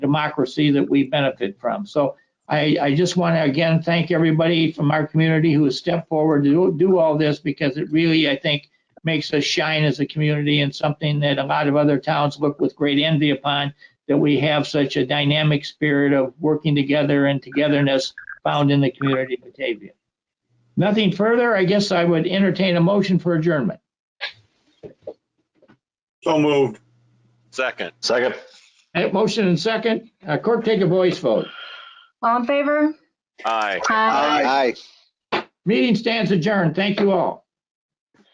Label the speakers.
Speaker 1: democracy that we benefit from. So I, I just want to again thank everybody from our community who has stepped forward to do- do all this because it really, I think, makes us shine as a community and something that a lot of other towns look with great envy upon, that we have such a dynamic spirit of working together and togetherness found in the community of Batavia. Nothing further, I guess I would entertain a motion for adjournment.
Speaker 2: So moved.
Speaker 3: Second.
Speaker 4: Second.
Speaker 1: Uh, Motion and second, Uh, clerk take a voice vote.
Speaker 5: All in favor?
Speaker 3: Aye.
Speaker 5: Aye.
Speaker 4: Aye.
Speaker 1: Meeting stands adjourned, thank you all.